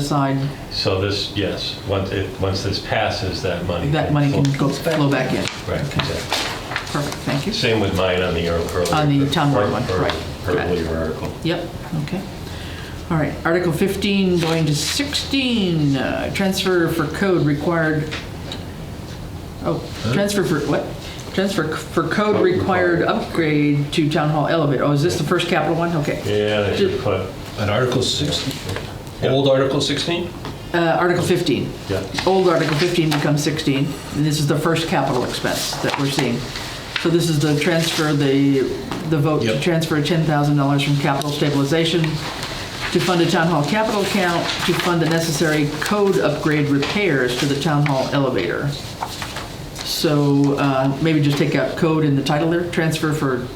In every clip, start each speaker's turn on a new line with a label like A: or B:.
A: aside,
B: So this, yes, once, it, once this passes, that money.
A: that money can go, flow back in.
B: Right, exactly.
A: Perfect, thank you.
B: Same with mine on the ear- earlier.
A: On the town board
B: ear-
A: one,
B: ear-
A: right.
B: Earlier article.
A: Yep, okay. All right, Article 15, going to 16, uh, transfer for code required, oh, transfer for, what? Transfer c- for code
B: Code
A: required
B: required.
A: upgrade to Town Hall elevator. Oh, is this the first capital one? Okay.
B: Yeah, they should put,
C: At Article 16, old Article 16?
A: Uh, Article 15.
B: yeah,
A: Old Article 15 becomes 16, and this is the first capital expense that we're seeing. So this is the transfer, the, the vote to
C: Yep.
A: transfer $10,000 from capital stabilization to fund a town hall capital account, to fund the necessary code upgrade repairs to the town hall elevator. So uh, maybe just take out code in the title there, transfer for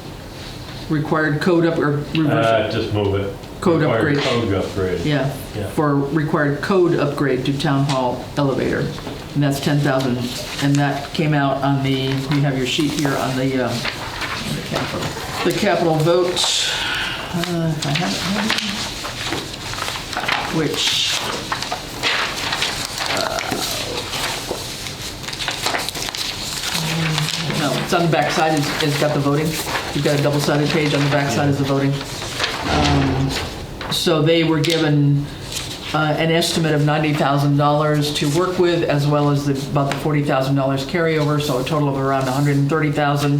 A: required code up, or reverse,
B: Uh, just move it.
A: Code
B: Required
A: upgrade.
B: Code upgrade.
A: yeah,
B: yeah.
A: for required code upgrade to town hall elevator. And that's 10,000, and that came out on the, you have your sheet here on the, um, the capital vote. uh, if I have it handy, Which, uh, no, it's on the back side. it's it's got the voting. You've got a double-sided page, on the back side is the voting. So they were given uh, an estimate of $90,000 to work with, as well as the- about the $40,000 carryover, so a total of around $130,000.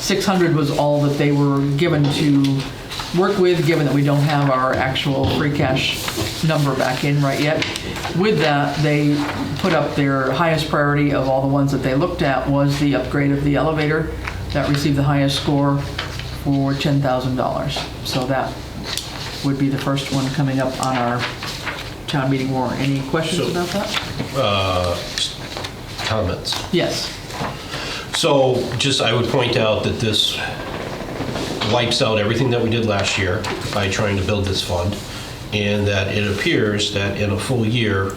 A: 600 was all that they were given to work with, given that we don't have our actual free cash number back in right yet. With that, they put up their highest priority of all the ones that they looked at was the upgrade of the elevator. That received the highest score for $10,000. So that would be the first one coming up on our town meeting warrant. Any questions
C: So-
A: about that?
C: Comments?
A: Yes.
C: So just, I would point out that this wipes out everything that we did last year by trying to build this fund, and that it appears that in a full year,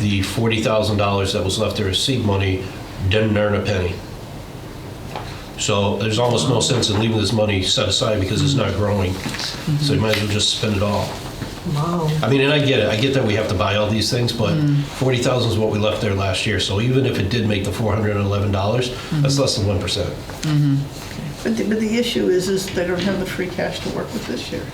C: the $40,000 that was left there as seed money didn't earn a penny. So there's almost no sense in leaving this money set aside because it's not growing, so you might as well just spend it all. I mean, and I get it. I get that we have to buy all these things, but forty thousand is what we left there last year. So even if it did make the four hundred and eleven dollars, that's less than one percent.
D: But the, but the issue is, is they don't have the free cash to work with this year.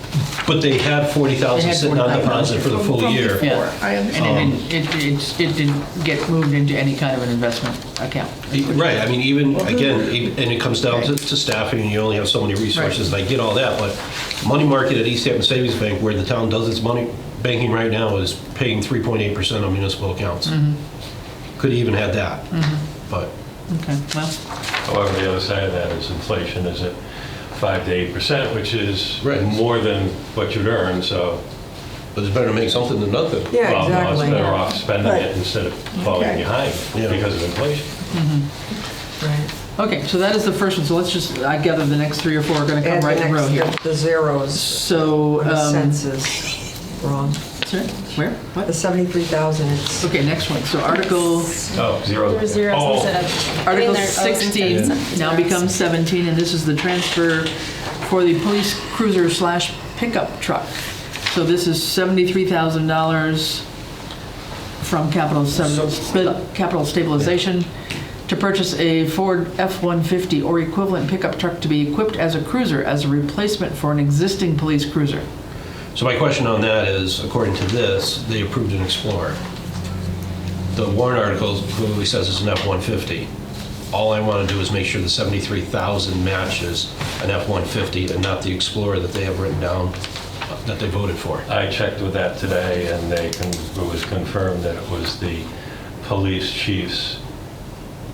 C: But they had forty
A: They
C: thousand
A: had
C: sitting on
A: $40,000
C: deposit for the
D: From-
C: full
D: from
C: year.
D: before,
A: Yeah.
D: I understand.
A: And it didn't- it, it, it didn't get moved into any kind of an investment account.
C: Right. I mean, even again, even- and it comes down to, to staffing, and you only have so many resources. And I get all that, but money market at East Hampton Savings Bank, where the town does its money banking right now, is paying three point eight percent on municipal accounts. Could even had that, but.
A: Okay, well,
B: However, the other side of that is inflation is at five to eight percent, which is
C: Right.
B: more than what you'd earn, so.
C: But it's better to make something than nothing.
B: well, no, It's better
E: Yeah,
B: off spending
D: Right.
B: it instead of falling
D: Okay.
B: behind
C: Yeah.
B: because of inflation.
E: exactly. Right.
A: okay, so that is the first one, so let's just, I gather the next three or four are gonna come
E: And the
A: right in a row
E: next-
A: here.
E: The zeros,
A: So,
E: the
A: um,
E: sense is wrong.
A: sorry, where,
E: The
A: what?
E: 73,000 is,
A: Okay, next one, so Article,
B: Oh, zero.
F: There were zeros
B: Oh,
F: instead of. I mean,
A: Article
F: there are O's instead of
A: 16
F: zeros.
A: now becomes 17, and this is the transfer for the police cruiser slash pickup truck. So this is $73,000 from capital sub- sp- capital stabilization to purchase a Ford F-150 or equivalent pickup truck to be equipped as a cruiser as a replacement for an existing police cruiser.
C: So my question on that is, according to this, they approved an Explorer. The warrant article clearly says it's an F-150. All I want to do is make sure the 73,000 matches an F-150 and not the Explorer that they have written down, uh, that they voted for.
B: I checked with that today, and they, con- it was confirmed that it was the police chief's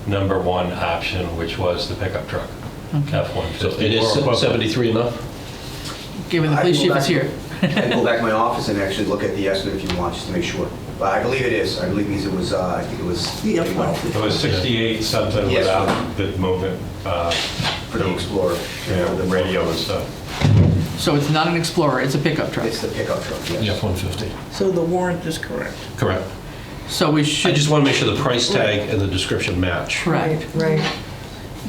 B: number one option, which was the pickup truck,
C: So
B: F-150.
C: it
B: or equivalent.
C: is 73 enough?
A: Given the
G: I
A: police
G: will
A: chief is
G: back-
A: here.
G: I can go back to my office and actually look at the estimate if you want, just to make sure. But I believe it is, I believe because it was, uh, I think it was.
D: The F-150.
B: It was 68 something
G: Yes.
B: without the movement, uh,
G: For the Explorer.
B: you know, the radio and stuff.
A: So it's not an Explorer, it's a pickup truck.
G: It's the pickup truck,
C: The
G: yes.
C: F-150.
D: So the warrant is correct.
C: Correct.
A: So we
C: I
A: should,
C: just want to make sure the price tag and the description match.
A: right.
E: right, right.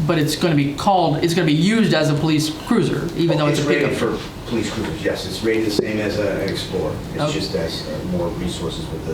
A: but it's going to be called, it's going to be used as a police cruiser, even though it's a pickup.
G: rated for police cruisers, yes, it's rated the same as a- an Explorer. It's
A: Okay.
G: just as uh, more resources with the